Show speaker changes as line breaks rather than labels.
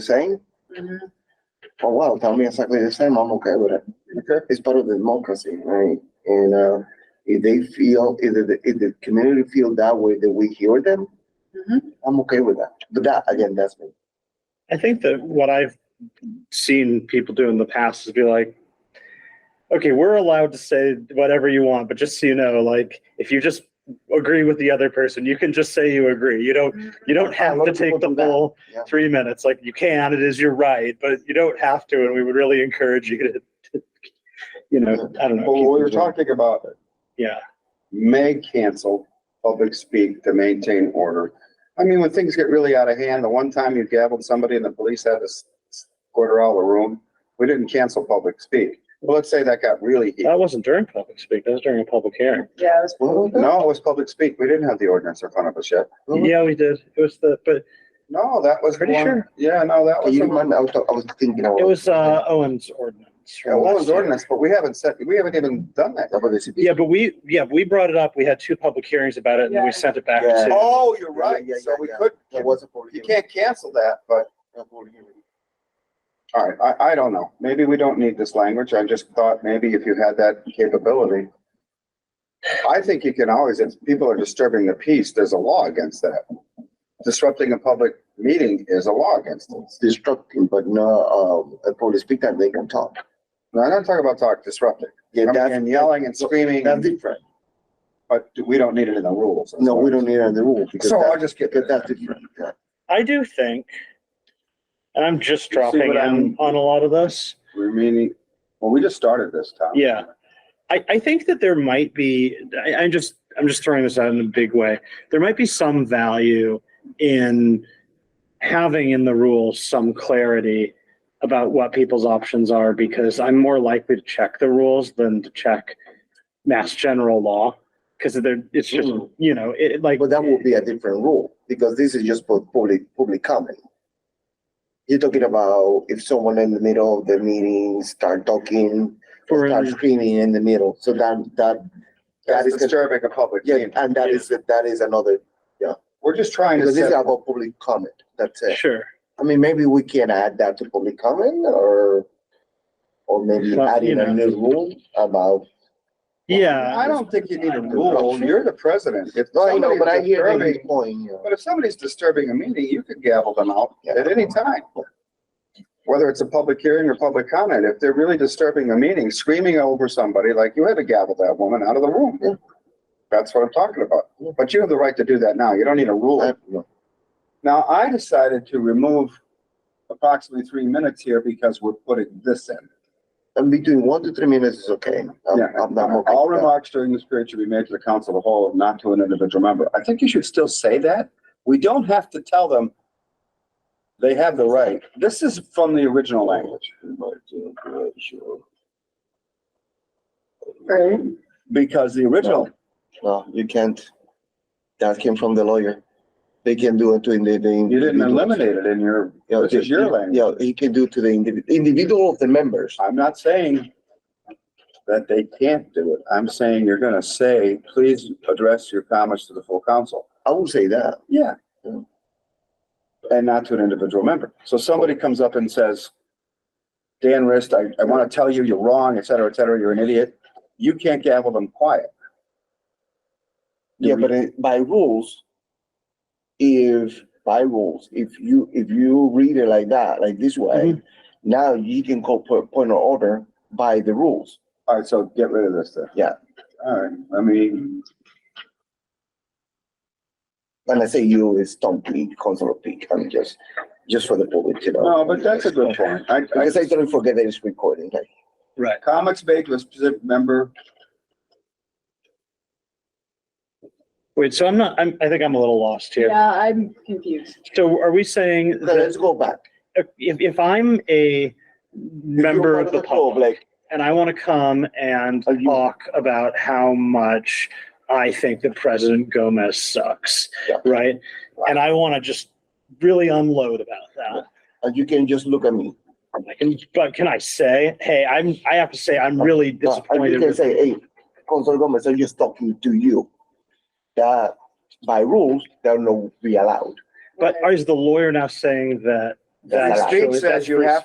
same? Oh, wow, tell me exactly the same, I'm okay with it.
Okay.
It's part of the democracy, right? And, uh, if they feel, if the, if the community feel that way, that we hear them,
Mhm.
I'm okay with that. But that, again, that's me.
I think that what I've seen people do in the past is be like, okay, we're allowed to say whatever you want, but just so you know, like if you just agree with the other person, you can just say you agree. You don't you don't
A
have
lot
to
of people
take the
do that.
full
Yeah.
three minutes. Like you can, it is your right, but you don't have to, and we would really encourage you to, to, you know, I don't know.
Well,
keep
we were
things right.
talking about
Yeah.
may cancel public speak to maintain order. I mean, when things get really out of hand, the one time you gavelled somebody and the police had to s- s- quarter out the room, we didn't cancel public speak. Well, let's say that got really heated.
That wasn't during public speak, that was during a public hearing.
Yeah, it was
Well, that-
No, it was public speak. We didn't have the ordinance in front of us yet.
Mhm.
Yeah, we did. It was the, but
No, that was. the
Pretty
one-
sure.
Yeah, no, that
Can
was.
you
the one-
remind, I was, talk- I was thinking about.
it was uh Owen's ordinance. from
Yeah, well, it
last
was
year.
ordinance, but we haven't said, we haven't even done that.
About the city.
Yeah, but we, yeah, we brought it up. We had two public hearings about it and then
Yeah.
we sent it back
Yeah.
to,
Oh, you're right.
Yeah, yeah,
So we
yeah,
could,
There was a poll
you
hearing.
can't cancel that, but
A poll hearing.
All right, I, I don't know. Maybe we don't need this language. I just thought maybe if you had that capability. I think you can always, if people are disturbing the peace, there's a law against that. Disrupting a public meeting is a law against it.
It's destructive, but no, um, a poll speak that they can talk.
Now, I'm not talking about talk disrupting.
Yeah,
I'm-
that's,
And yelling and screaming,
that's different.
but we don't need it in the rules.
No, we don't need the rule because
So I'll
that,
just get
because
that.
that's different. Yeah.
I do think, and I'm just
You see what
dropping in
I'm-
on a lot of this.
We're meaning, well, we just started this time.
Yeah. I, I think that there might be, I, I'm just, I'm just throwing this out in a big way. There might be some value in having in the rules some clarity about what people's options are because I'm more likely to check the rules than to check mass general law. Cause they're, it's just,
Mm.
Mhm.
you know, it like.
But that would be a different rule, because this is just for public, public comment. You're talking about if someone in the middle of the meeting start talking, or
Or-
start screaming in the middle, so that, that, that
That's
is, the-
disturbing a public
yeah,
meeting.
and that is, that is another,
We're just trying to
because this is
set,
about public comment, that's it.
Sure.
I mean, maybe we can add that to public comment, or, or maybe
Well,
adding
you
a new rule about,
Yeah.
I don't think you need a rule. You're the president. If
no, I know,
somebody's
but I hear
disturbing-
David's point, you know.
But if somebody's disturbing a meeting, you could gavel them out at any time. Whether it's a public hearing or public comment, if they're really disturbing a meeting, screaming over somebody, like you had to gavel that woman out of the room. That's what I'm talking about. But you have the right to do that now. You don't need a
I
rule.
don't know.
Now, I decided to remove approximately three minutes here because we're putting this in.
And between one to three minutes is okay. I'm-
Yeah, um,
I'm not okay
all
with that.
remarks during this period should be made to the council of the whole, not to an individual member. I think you should still say that. We don't have to tell them they have the right. This is from the original language.
Right.
Because the original,
No, you can't. That came from the lawyer. They can do it to the. the
you didn't
individual.
eliminate it in your,
Yeah,
this is your
yeah,
language.
Yeah, he can do to the individual, individual of the members.
I'm not saying that they can't do it. I'm saying you're gonna say, please address your comments to the full council.
I would say that.
Yeah.
Yeah.
And not to an individual member. So somebody comes up and says, Dan Rist, I, I want to tell you, you're wrong, et cetera, et cetera, you're an idiot. You can't gavel them quiet. Do
Yeah,
we-
but it- by rules, if, by rules, if you, if you read it like that, like this way,
Mm-hmm.
now you can call po- point of order by the rules.
All right, so get rid of this then.
Yeah.
All right, I mean,
And I say you is Tom Peak, Councilor Peak, I'm just, just for the public, you know.
no, but that's a good point. I, I,
Because I don't forget that it's recording, like.
Right.
comments made to a specific member,
Wait, so I'm not, I'm, I think I'm a little lost here.
Yeah, I'm confused.
So are we saying
Okay,
that
let's go back.
if, if I'm a member
You're
of
part
the public
Like,
and I want to come and
Are you-
talk about how much I think that President Gomez sucks,
Yeah.
right? And I want to just really unload about that.
and you can just look at me.
I can, but can I say, hey, I'm, I have to say, I'm really
But- And you
disappointed.
can
with-
say, hey, Council Gomez, I'm just talking to you. That by rules, they'll not be allowed.
But is the lawyer now saying that
That's
The
allowed.
state says you have